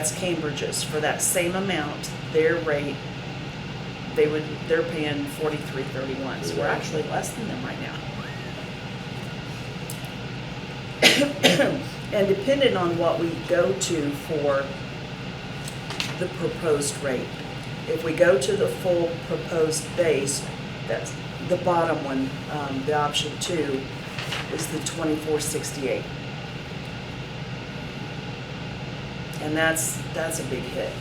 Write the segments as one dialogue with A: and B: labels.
A: That's Cambridge's, for that same amount, their rate, they would, they're paying forty-three thirty-one, so we're actually less than them right now. And depending on what we go to for the proposed rate, if we go to the full proposed base, that's the bottom one, um, the option two, is the twenty-four sixty-eight. And that's, that's a big hit.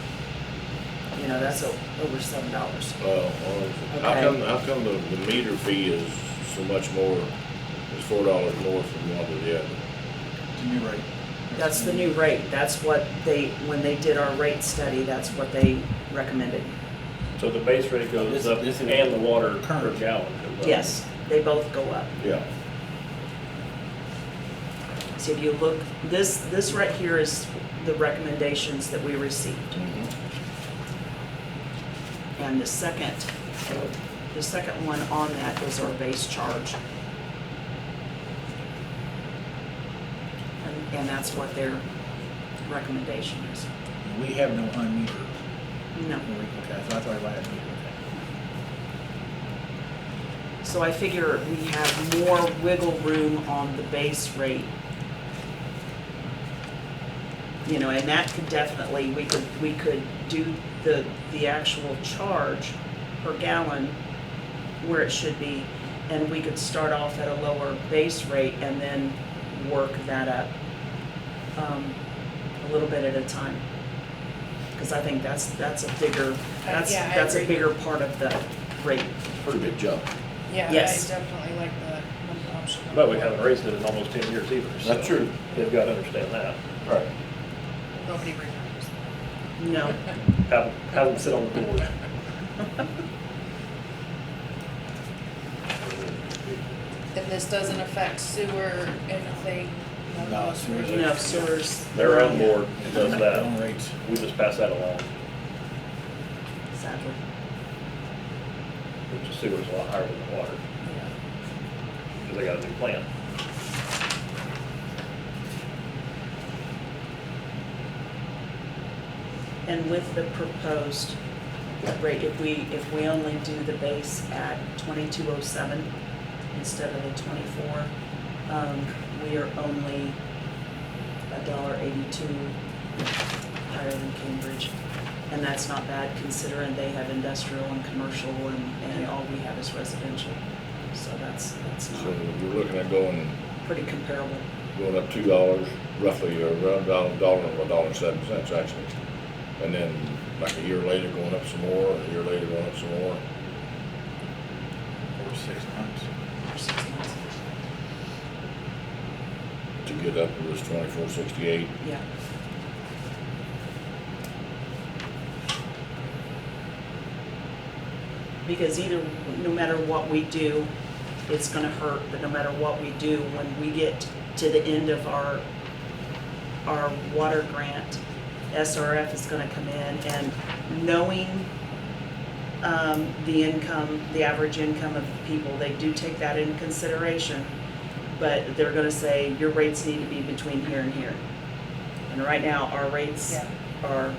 A: You know, that's o- over seven dollars.
B: Well, how
A: Okay.
B: come, how come the, the meter fee is so much more, is four dollars more from one to the other?
C: The new rate.
A: That's the new rate. That's what they, when they did our rate study, that's what they recommended.
D: So the base rate goes
C: This-
D: up
C: this is-
D: and the water per
C: Current.
D: gallon goes up.
A: Yes, they both go up.
B: Yeah.
A: So if you look, this, this right here is the recommendations that we received.
D: Mm-hmm.
A: And the second, the second one on that is our base charge. And, and that's what their recommendation is.
C: We have no unmetered.
A: No.
C: Okay, so that's why I had metered.
A: So I figure we have more wiggle room on the base rate. You know, and that could definitely, we could, we could do the, the actual charge per gallon where it should be, and we could start off at a lower base rate and then work that up um, a little bit at a time. Because I think that's, that's a bigger, that's,
E: Uh, yeah, I
A: that's a
E: agree.
A: bigger part of the rate.
B: Pretty big jump.
E: Yeah, I
A: Yes.
E: definitely like the one option.
D: But we haven't raised it in almost ten years either. so
B: That's true.
D: They've got to understand that.
B: Right.
E: Nobody remembers.
A: No.
D: Have, have them sit on the board.
E: And this doesn't affect sewer, anything?
C: No, sewer's-
A: No, sewers.
D: Their own board does
C: Their own
D: that.
C: rates.
D: We just pass that along,
A: Sadly.
D: which the sewer's a lot higher than the water,
E: Yeah.
D: because they got a new plant.
A: And with the proposed rate, if we, if we only do the base at twenty-two oh seven instead of the twenty-four, um, we are only a dollar eighty-two higher than Cambridge. And that's not bad considering they have industrial and commercial and, and all we have is residential. So that's, that's
B: So
A: not
B: you're looking at going,
A: pretty comparable.
B: going up two dollars roughly, or around dollar, dollar, or a dollar seven cents actually. And then like a year later, going up some more, and a year later, going up some more.
C: Or six months.
A: for six months.
B: To get up to this twenty-four sixty-eight,
A: Yeah. Because either, no matter what we do, it's gonna hurt, but no matter what we do, when we get to the end of our, our water grant, SRF is gonna come in and knowing, um, the income, the average income of people, they do take that into consideration. But they're gonna say, your rates need to be between here and here. And right now, our rates
E: Yeah.
A: are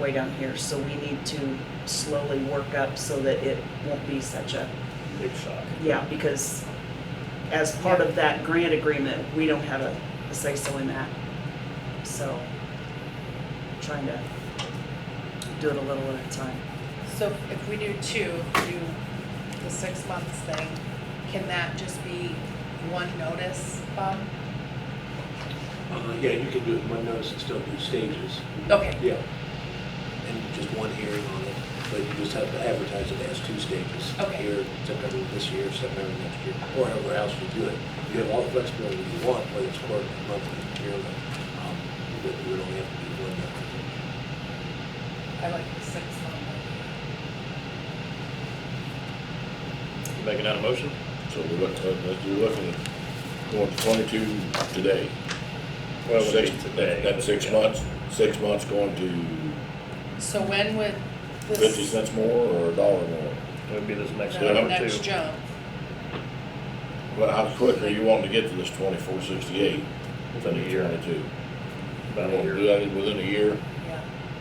A: way down here, so we need to slowly work up so that it won't be such a,
D: Big shock.
A: yeah, because as part of that grant agreement, we don't have a, a say-so in that. So, trying to do it a little at a time.
E: So if we do two, if we do the six months thing, can that just be one notice, Bob?
F: Uh, Yeah, you can do it in one notice and still do stages.
E: Okay.
F: Yeah. And just one hearing on it, but you just have to advertise it as two stages.
E: Okay.
F: Here, September this year, September next year, or however else you do it. You have all the flexibility you want, whether it's quarterly, monthly, yearly, um, but you would only have to do one notice.
E: I like the six month.
D: Making that a motion?
B: so we're looking, let's do looking, at going to twenty-two today.
D: Well, it would be
B: Six-
D: today.
B: That's six
D: Yeah.
B: months, six months going to
E: So when would this?
B: 50 cents more or a dollar more?
D: It would be this next
E: No,
D: one or two.
E: Next jump.
B: Well, how quick are you wanting to get to this twenty-four sixty-eight?
D: Within a year.
B: Twenty-two.
D: About a
B: You wanna
D: year.
B: Do that within a year?